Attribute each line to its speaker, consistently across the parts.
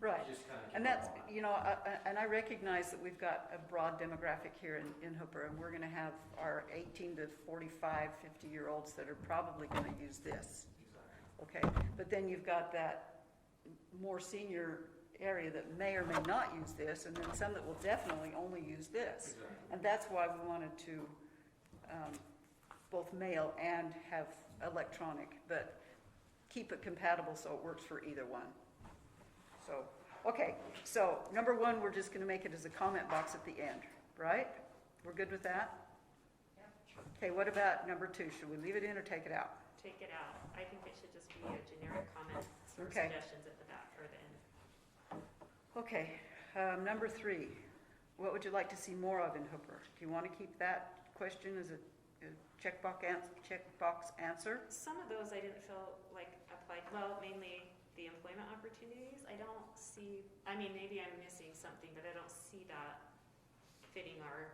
Speaker 1: Right.
Speaker 2: Just kind of.
Speaker 1: And that's, you know, I- I- and I recognize that we've got a broad demographic here in, in Hooper, and we're gonna have our eighteen to 45, 50 fifty-year-olds that are probably gonna use this, okay? But then you've got that more senior area that may or may not use this, and then some that will definitely only use this. And that's why we wanted to, um, both mail and have electronic, but keep it compatible so it works for either one. So, okay, so number one, we're just gonna make it as a comment box at the end, right? We're good with that? Okay, what about number two? Should we leave it in or take it out?
Speaker 3: Take it out. I think it should just be a generic comment or
Speaker 1: Okay.
Speaker 3: suggestions at the back or the end.
Speaker 1: Okay, um, number three, what would you like to see more of in Hooper? Do you wanna keep that question as a, a checkbox ans, checkbox answer?
Speaker 3: Some of those I didn't feel like applied, well, mainly the employment opportunities. I don't see, I mean, maybe I'm missing something, but I don't see that fitting our.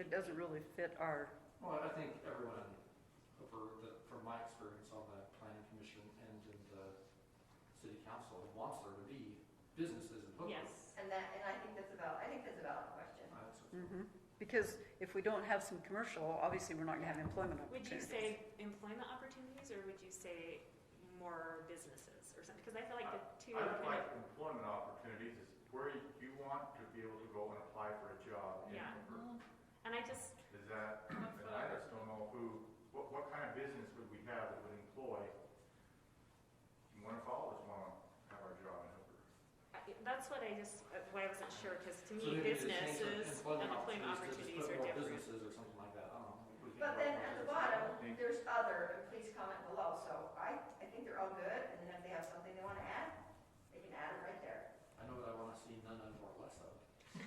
Speaker 1: It doesn't really fit our,
Speaker 2: Well, I think everyone over the, from my experience on the planning commission and in the city council wants there to be businesses in Hooper.
Speaker 3: Yes,
Speaker 4: And that, and I think that's about, I think that's a valid question.
Speaker 2: I also-
Speaker 1: mhm. because if we don't have some commercial, obviously we're not gonna have employment
Speaker 3: would you
Speaker 1: opportunities.
Speaker 3: say employment opportunities or would you say more businesses or something? Because I feel like the two
Speaker 5: I
Speaker 3: are
Speaker 5: would
Speaker 3: kind
Speaker 5: like
Speaker 3: of,
Speaker 5: employment opportunities is where you- you want to be able to go and apply for a job. in
Speaker 3: Yeah.
Speaker 5: Hooper.
Speaker 3: and I just,
Speaker 5: Is that, and I just don't know who, what, what kind of business would we have that would employ? One of all of us want to have our job in Hooper.
Speaker 3: I- that's what I just, uh, why I wasn't sure, because to
Speaker 2: So
Speaker 3: me,
Speaker 2: maybe just change the
Speaker 3: businesses and employment opportunities
Speaker 2: to just put
Speaker 3: are
Speaker 2: more
Speaker 3: different.
Speaker 2: Businesses or something like that, I don't know. We can
Speaker 4: But
Speaker 2: work
Speaker 4: then
Speaker 2: on
Speaker 4: at the
Speaker 2: it.
Speaker 4: bottom,
Speaker 5: Thank you.
Speaker 4: there's other, and please comment below, so I, I think they're all good, and then if they have something they wanna add, they can add it right there.
Speaker 2: I know that I wanna see none of or less of.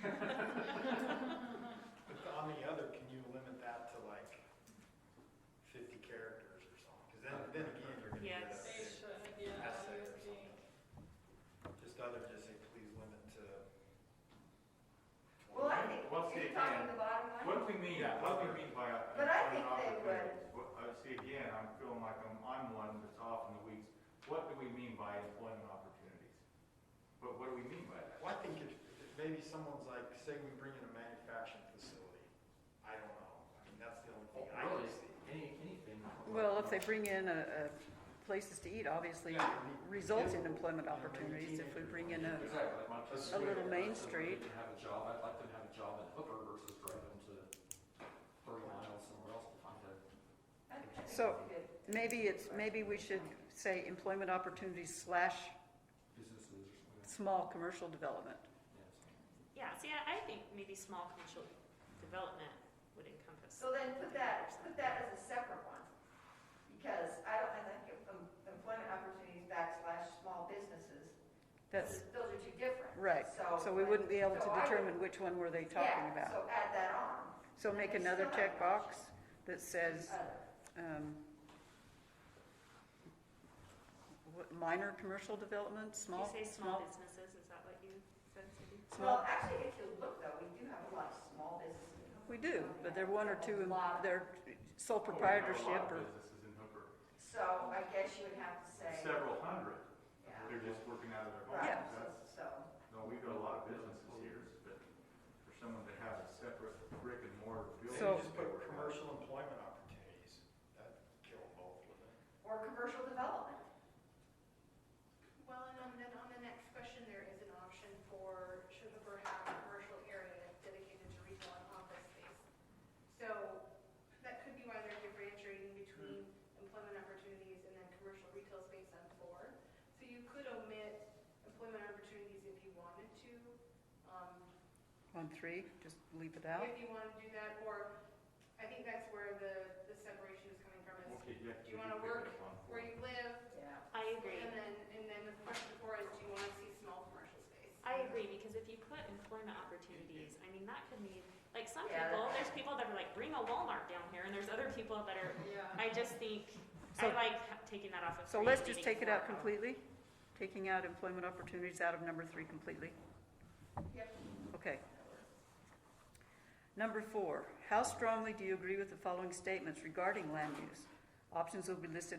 Speaker 6: But on the other, can you limit that to like fifty characters or something? Because then, then again, you're gonna get a
Speaker 3: Yes.
Speaker 7: They
Speaker 6: big
Speaker 7: should, yeah,
Speaker 6: essay
Speaker 7: I
Speaker 6: or
Speaker 7: would
Speaker 6: something.
Speaker 7: think.
Speaker 6: Just other, just say, please limit to.
Speaker 4: Well, I think,
Speaker 5: What's
Speaker 4: you're
Speaker 5: the
Speaker 4: talking
Speaker 5: again?
Speaker 4: the bottom one,
Speaker 5: What do we mean, what do we mean by employment
Speaker 4: But I think they
Speaker 5: opportunities?
Speaker 4: would.
Speaker 5: What- uh, see, again, I'm feeling like I'm, I'm one that's off in the weeds. What do we mean by employment opportunities? What, what do we mean by that?
Speaker 6: Well, I think if, if maybe someone's like, say we bring in a manufacturing facility, I don't know, I mean, that's the only thing I
Speaker 2: Really,
Speaker 6: can see.
Speaker 2: any, anything.
Speaker 1: Well, if they bring in a, a places to eat, obvioly
Speaker 6: Yeah, I mean,
Speaker 1: results in
Speaker 6: kids-
Speaker 1: employment
Speaker 6: you know, maybe
Speaker 1: opportunities if we bring in a,
Speaker 6: teenagers.
Speaker 2: Exactly, like my kids.
Speaker 6: A
Speaker 1: little Main Street.
Speaker 2: They have a job, I'd like them to have a job in Hooper versus driving to thirty miles somewhere else to find a.
Speaker 4: I think that's
Speaker 1: So-
Speaker 4: a good.
Speaker 1: maybe it's, maybe we should say employment opportunities slash
Speaker 2: businesses or something. like that.
Speaker 1: small commercial development.
Speaker 2: Yeah, so-
Speaker 3: Yeah, see, I I think maybe small commercial development would encompass.
Speaker 4: So then put that, put that as a separate one, because I don't, I think em- employment opportunities backslash small businesses,
Speaker 1: That's,
Speaker 4: those are two different.
Speaker 1: right, so we wouldn't be able
Speaker 4: so
Speaker 1: to
Speaker 4: I would-
Speaker 1: determine which one were they talking
Speaker 4: Yeah,
Speaker 1: about.
Speaker 4: so add that on,
Speaker 1: So make another checkbox that says,
Speaker 4: other.
Speaker 1: um, what, minor commercial development,
Speaker 3: Did you
Speaker 1: small,
Speaker 3: say
Speaker 1: small,
Speaker 3: small businesses, is that what you said, Cindy?
Speaker 4: Well,
Speaker 1: small.
Speaker 4: actually, if you look though, we do have a lot of small businesses. in Hooper.
Speaker 1: We do, but they're one or two,
Speaker 4: A lot.
Speaker 1: they're sole
Speaker 5: Oh, we have a lot of
Speaker 1: proprietorship or.
Speaker 5: Businesses in Hooper,
Speaker 4: So I guess you would have to say,
Speaker 5: several hundred.
Speaker 4: yeah,
Speaker 5: They're just working out of their homes.
Speaker 4: right, so,
Speaker 5: That's-
Speaker 4: so,
Speaker 5: No, we've got a lot of businesses here, but for someone that has a separate brick and mortar building.
Speaker 1: So-
Speaker 6: Maybe just put commercial employment opportunities, that kill both of them.
Speaker 4: or commercial development.
Speaker 8: Well, and on- then on the next question, there is an option for should Hooper have a commercial area dedicated to retail and office space. So that could be why they're differentiating between employment opportunities and then commercial retail space on floor. So you could omit employment opportunities if you wanted to, um,
Speaker 1: On three, just leave it out?
Speaker 8: if you want to do that, or I think that's where the, the separation is coming from, is
Speaker 5: Okay, yeah. we
Speaker 8: Do you
Speaker 5: can
Speaker 8: wanna
Speaker 5: pick
Speaker 8: work
Speaker 5: up on
Speaker 8: where
Speaker 5: four.
Speaker 8: you live,
Speaker 4: Yeah.
Speaker 3: I agree.
Speaker 8: And then, and then the question before is, do you want to see small commercial space?
Speaker 3: I agree, because if you put employment opportunities, I mean, that could mean, like, some
Speaker 4: Yeah,
Speaker 3: people,
Speaker 4: that-
Speaker 3: there's people that are like, bring a Walmart down here, and there's other people that are,
Speaker 7: Yeah.
Speaker 3: I just think, I
Speaker 1: So-
Speaker 3: like ha- taking that off of.
Speaker 1: So
Speaker 3: three
Speaker 1: let's
Speaker 3: and
Speaker 1: just
Speaker 3: leaving
Speaker 1: take it
Speaker 3: four
Speaker 1: out completely, taking out employment opportunities out of number three completely?
Speaker 4: Yep.
Speaker 1: Okay. Number four, how strongly do you agree with the following statements regarding land use? Options will be listed